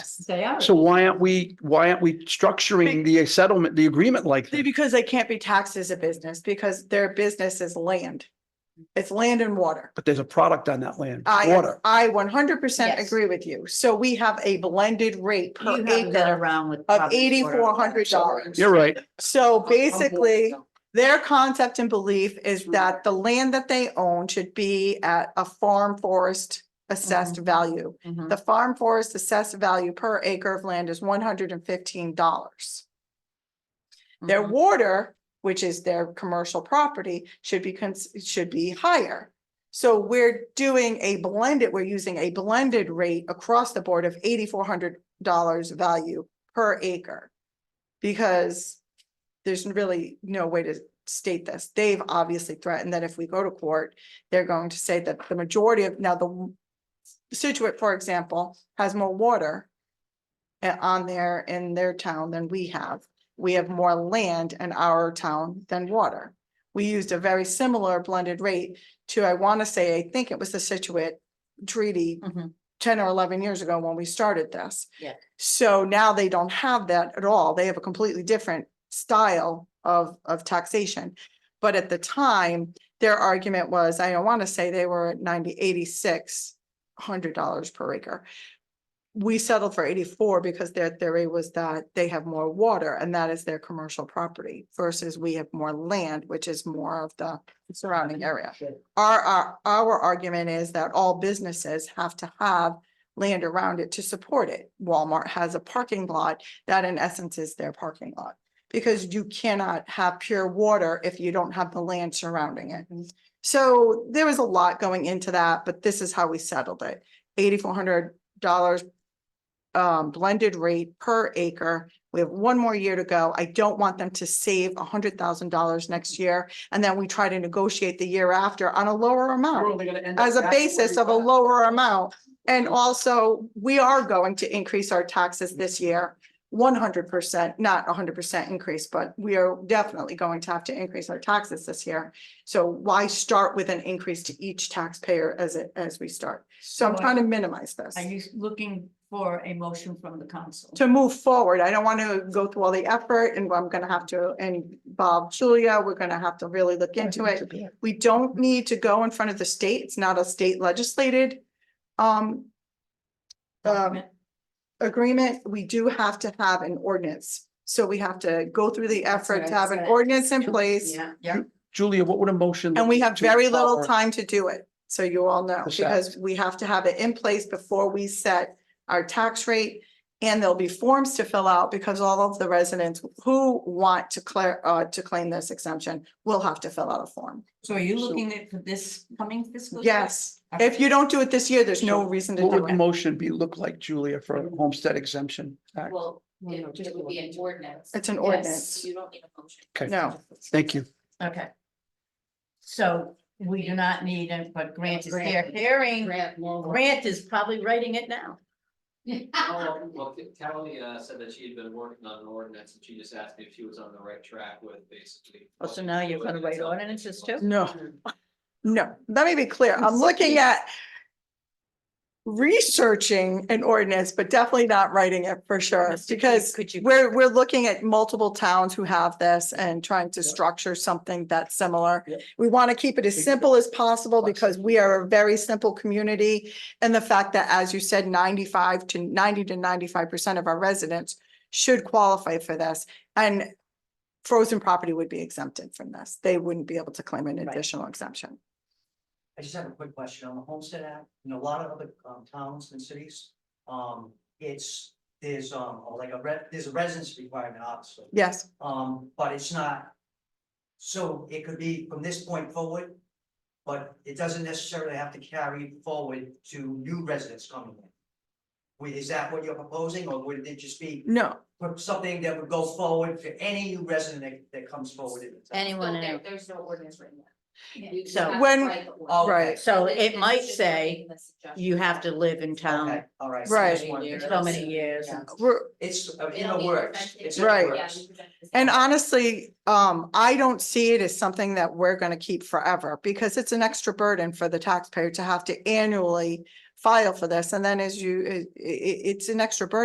Stay out. So why aren't we, why aren't we structuring the settlement, the agreement like that? Because they can't be taxed as a business because their business is land. It's land and water. But there's a product on that land, I, water. I one hundred percent Yes. agree with you. So we have a blended rate You per haven't been acre. around with. of property for- $8,400. You're right. So basically, their concept and belief is that the land that they own should be at a farm forest assessed value. Mhm. The farm forest assessed value per acre of land is one hundred and fifteen dollars. Their Mhm. water, which is their commercial property, should be, cons- should be higher. So we're doing a blended, we're using a blended rate across the board of eighty-four hundred dollars value per acre. Because there's really no way to state this. They've obviously threatened that if we go to court, they're going to say that the majority of, now the Situate, for example, has more water uh, on there in their town than we have we have more land in our town than water. We used a very similar blended rate to, I want to say, I think it was the Situate treaty Mhm. ten or eleven years ago when we started this. Yeah. So now they don't have that at all. They have a completely different style of, of taxation. But at the time, their argument was, I want to say they were at ninety, eighty-six hundred dollars per acre. We settled for eighty-four because their theory was that they have more water and that is their commercial property versus we have more land, which is more of the surrounding Mm-hmm. area. Our, our, our argument is that all businesses have to have land around it to support it. Walmart has a parking lot that in essence is their parking lot. Because you cannot have pure water if you don't have the land surrounding it. So there was a lot going into that, but this is how we settled it. Eighty-four hundred dollars um, blended rate per acre. We have one more year to go. I don't want them to save hundred thousand dollars next year. And then we try to negotiate the year after on a lower amount, as a basis of a lower amount. And also, we are going to increase our taxes this year, one hundred percent, not hundred percent increase, but we are definitely going to have to increase our taxes this year. So why start with an increase to each taxpayer as it, as we start? So I'm So trying to minimize this Are you looking for a motion from the council? to move forward. I don't want to go through all the effort and I'm gonna have to, and Bob, Julia, we're gonna have to really look into it. We don't need to go in front of the state. It's not a state legislated um Document? agreement. We do have to have an ordinance. So we have to go through the That's what effort to I have an said. ordinance in place Yeah, yeah. Julia, what would a motion? and we have to very little power- time to do it. So you all know, Exactly. because we have to have it in place before we set our tax rate. And there'll be forms to fill out because all of the residents who want to clear, uh, to claim this exemption will have to fill out a form. So are you So- looking at for this coming fiscal? year? Yes, if you don't do it this year, there's no So reason to What do would the it. motion be, look like, Julia, for a homestead exemption? act? Well, it it would be an ordinance. It's an Yes, ordinance. You don't need a motion. Okay. No. Thank you. Okay. So we do not need it, but Grant is there Grant. hearing. Grant more. Grant is probably writing it now. Oh, Well, Tally uh said that she had been working on an ordinance and she just asked me if she was on the right track with basically. Hmm. Oh, so now you're gonna write ordinances too? No, no, let me be clear. I'm looking at researching an ordinance, but definitely not writing it for sure, Mr. Keith, because Could you? We're, we're looking at multiple towns who have this and trying to structure something that's similar. Yep. We want to keep it as simple as possible because we are a very simple community. And the fact that, as you said, ninety-five to ninety to ninety-five percent of our residents should qualify for this. And frozen property would be exempted from this. They wouldn't be able to claim an Right. additional exemption. I just have a quick question on the Homestead Act, in a lot of other um towns and cities, um, it's, there's um, like a re, there's a residence requirement, obviously. Yes, Um, but it's not. So it could be from this point forward, but it doesn't necessarily have to carry forward to new residents coming in. Wait, is that what you're proposing, or would it just be no, something that would go forward for any new resident that that comes forward in the town? Anyone So there- else? There's no ordinance written yet. You just So have to When- write the ordinance. Oh, right. So This- it this might is just say making the suggestion. you have to live in town Okay, all right. Right. just wanted to- so many years. Yeah. we're, It's uh, in It'll the be works, presented. it's in the Right. Yeah, works. you present this- And honestly, um, I don't see it as something that we're gonna keep forever because it's an extra burden for the taxpayer to have to annually file for this. And then as you, it, it- it's an extra burden